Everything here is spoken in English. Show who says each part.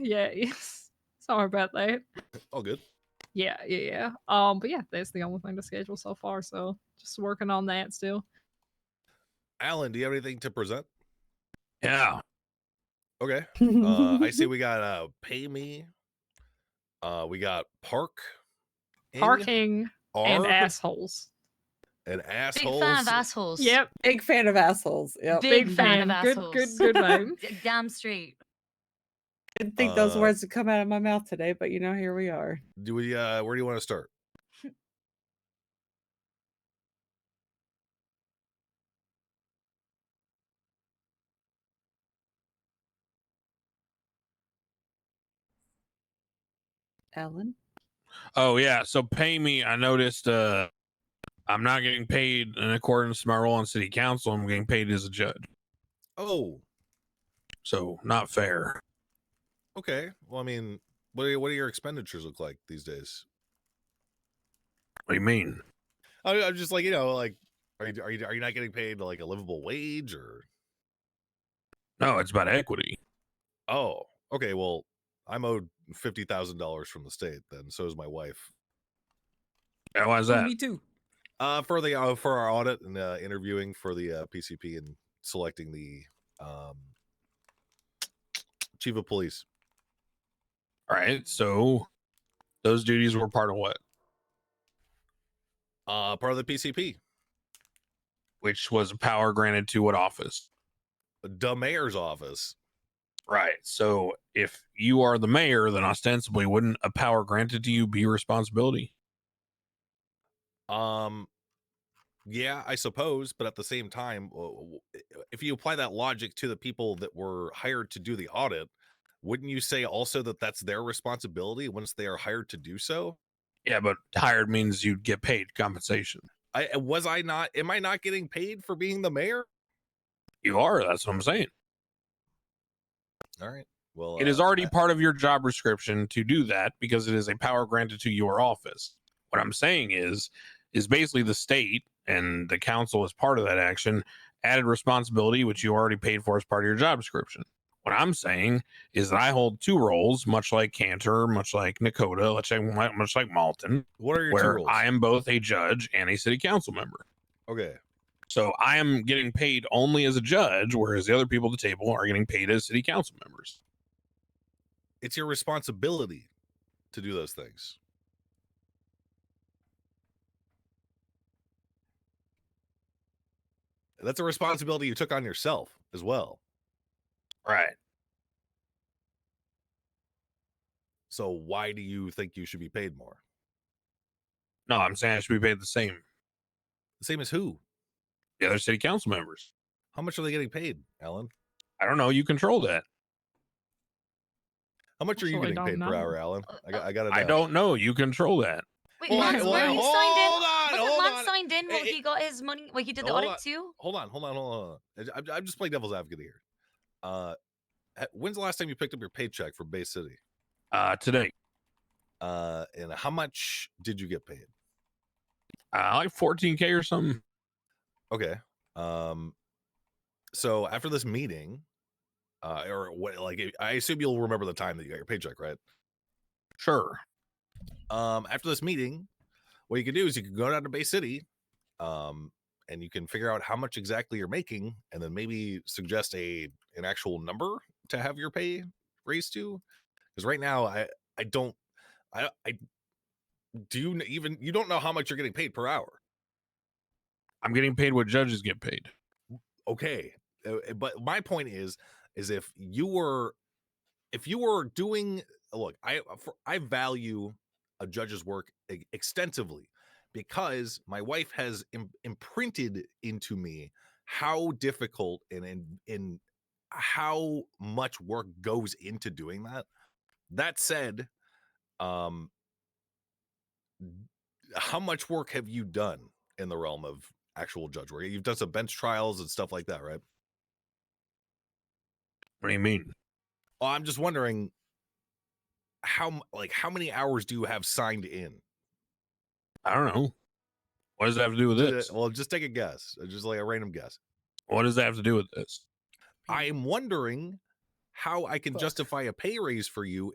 Speaker 1: Yeah, yes. Sorry about that.
Speaker 2: All good.
Speaker 1: Yeah, yeah, yeah. Um, but yeah, that's the only thing to schedule so far. So just working on that still.
Speaker 2: Alan, do you have anything to present?
Speaker 3: Yeah.
Speaker 2: Okay. Uh, I see we got uh, Pay Me. Uh, we got Park.
Speaker 1: Parking and
Speaker 2: Arb,
Speaker 1: assholes.
Speaker 2: And
Speaker 4: Big
Speaker 2: assholes.
Speaker 4: fan of assholes.
Speaker 1: Yep,
Speaker 5: Big fan of assholes. Yep.
Speaker 1: big,
Speaker 4: Big
Speaker 1: fan.
Speaker 4: fan of
Speaker 1: good, good,
Speaker 4: assholes.
Speaker 1: good name.
Speaker 4: D- Damn straight.
Speaker 5: Didn't think those
Speaker 2: Uh,
Speaker 5: words would come out of my mouth today, but you know, here we are.
Speaker 2: Do we? Uh, where do you want to start?
Speaker 5: Ellen.
Speaker 3: Oh yeah. So pay me. I noticed uh I'm not getting paid in accordance to my role on city council. I'm getting paid as a judge.
Speaker 2: Oh,
Speaker 3: So not fair.
Speaker 2: okay. Well, I mean, what do what do your expenditures look like these days?
Speaker 3: What do you mean?
Speaker 2: I, I'm just like you know, like are you are you are you not getting paid like a livable wage or?
Speaker 3: No, it's about equity.
Speaker 2: Oh, okay. Well, I'm owed fifty thousand dollars from the state. Then so is my wife.
Speaker 3: Yeah, Why is that?
Speaker 5: too.
Speaker 2: Uh, for the uh, for our audit and uh, interviewing for the uh, PCP and selecting the um, chief of police.
Speaker 3: All right. So those duties were part of what?
Speaker 2: Uh, part of the PCP,
Speaker 3: Which was a power granted to what office?
Speaker 2: the mayor's office.
Speaker 3: Right. So if you are the mayor, then ostensibly wouldn't a power granted to you be your responsibility?
Speaker 2: Um, yeah, I suppose, but at the same time, w- w- if you apply that logic to the people that were hired to do the audit, wouldn't you say also that that's their responsibility once they are hired to do so?
Speaker 3: Yeah, but hired means you'd get paid compensation.
Speaker 2: I uh, was I not? Am I not getting paid for being the mayor?
Speaker 3: You are. That's what I'm saying.
Speaker 2: All right. Well,
Speaker 3: It is
Speaker 2: uh,
Speaker 3: already
Speaker 2: I-
Speaker 3: part of your job description to do that because it is a power granted to your office. What I'm saying is, is basically the state and the council as part of that action added responsibility, which you already paid for as part of your job description. What I'm saying is that I hold two roles, much like Cantor, much like Nakota, much like, much like Malton,
Speaker 2: what are your two
Speaker 3: where
Speaker 2: rules?
Speaker 3: I am both a judge and a city council member.
Speaker 2: okay.
Speaker 3: So I am getting paid only as a judge, whereas the other people at the table are getting paid as city council members.
Speaker 2: It's your responsibility to do those things. That's a responsibility you took on yourself as well.
Speaker 3: Right.
Speaker 2: So why do you think you should be paid more?
Speaker 3: No, I'm saying I should be paid the same.
Speaker 2: The same as who?
Speaker 3: The other city council members.
Speaker 2: How much are they getting paid, Alan?
Speaker 3: I don't know. You control that.
Speaker 2: How much are you
Speaker 1: Actually,
Speaker 2: getting
Speaker 1: I
Speaker 2: paid
Speaker 1: don't
Speaker 2: per
Speaker 1: know.
Speaker 2: hour, Alan? I got, I got to
Speaker 3: I don't know. You control that.
Speaker 4: Uh, Wait,
Speaker 2: Hold on,
Speaker 4: Lance,
Speaker 2: hold
Speaker 4: were
Speaker 2: on,
Speaker 4: you
Speaker 2: hold
Speaker 4: signed in?
Speaker 2: on,
Speaker 4: Wasn't
Speaker 2: hold
Speaker 4: Lance
Speaker 2: on.
Speaker 4: signed in while
Speaker 2: It-
Speaker 4: he got his money? Well, he did the
Speaker 2: Hold
Speaker 4: audit
Speaker 2: on.
Speaker 4: too?
Speaker 2: Hold on, hold on, hold on. I- I'm, I'm just playing devil's advocate here. Uh, h- when's the last time you picked up your paycheck from Bay City?
Speaker 3: Uh, today,
Speaker 2: Uh, and how much did you get paid?
Speaker 3: uh, like 14k or something.
Speaker 2: Okay. Um, so after this meeting, uh, or what? Like, I- I assume you'll remember the time that you got your paycheck, right?
Speaker 3: Sure.
Speaker 2: um, after this meeting, what you can do is you can go down to Bay City, um, and you can figure out how much exactly you're making, and then maybe suggest a an actual number to have your pay raised to. Because right now, I I don't I I do you kn- even you don't know how much you're getting paid per hour.
Speaker 3: I'm getting paid what judges get paid.
Speaker 2: okay uh, uh, but my point is is if you were if you were doing look i uh, for, i value a judge's work e- extensively because my wife has im- imprinted into me how difficult and in in how much work goes into doing that that said um how much work have you done in the realm of actual judge work. You've done some bench trials and stuff like that, right?
Speaker 3: What do you mean?
Speaker 2: Well, Oh, I'm just wondering how m- like how many hours do you have signed in?
Speaker 3: I don't know. What does that have to do with
Speaker 2: Uh,
Speaker 3: this?
Speaker 2: Well, just take a guess, uh, just like a random guess.
Speaker 3: What does that have to do with this?
Speaker 2: I am wondering how I can
Speaker 5: Fuck.
Speaker 2: justify a pay raise for you